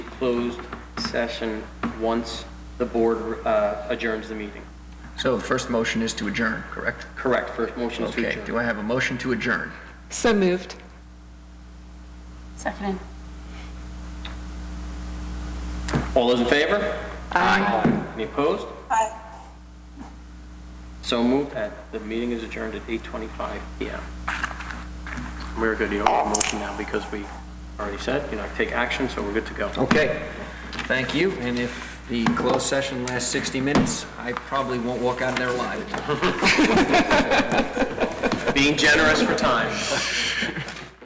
closed session once the board uh, adjourns the meeting. So the first motion is to adjourn, correct? Correct, first motion is to Okay, do adjourn. I have a motion to adjourn? So moved. Seconded. All those in favor? Aye. Any opposed? Aye. So moved, and the meeting is adjourned at 8:25 PM. We're good, you don't have a motion now because we already said, you know, take action, so we're good to go. Okay, thank you, and if the closed session lasts 60 minutes, I probably won't walk out of there alive. Being generous for time.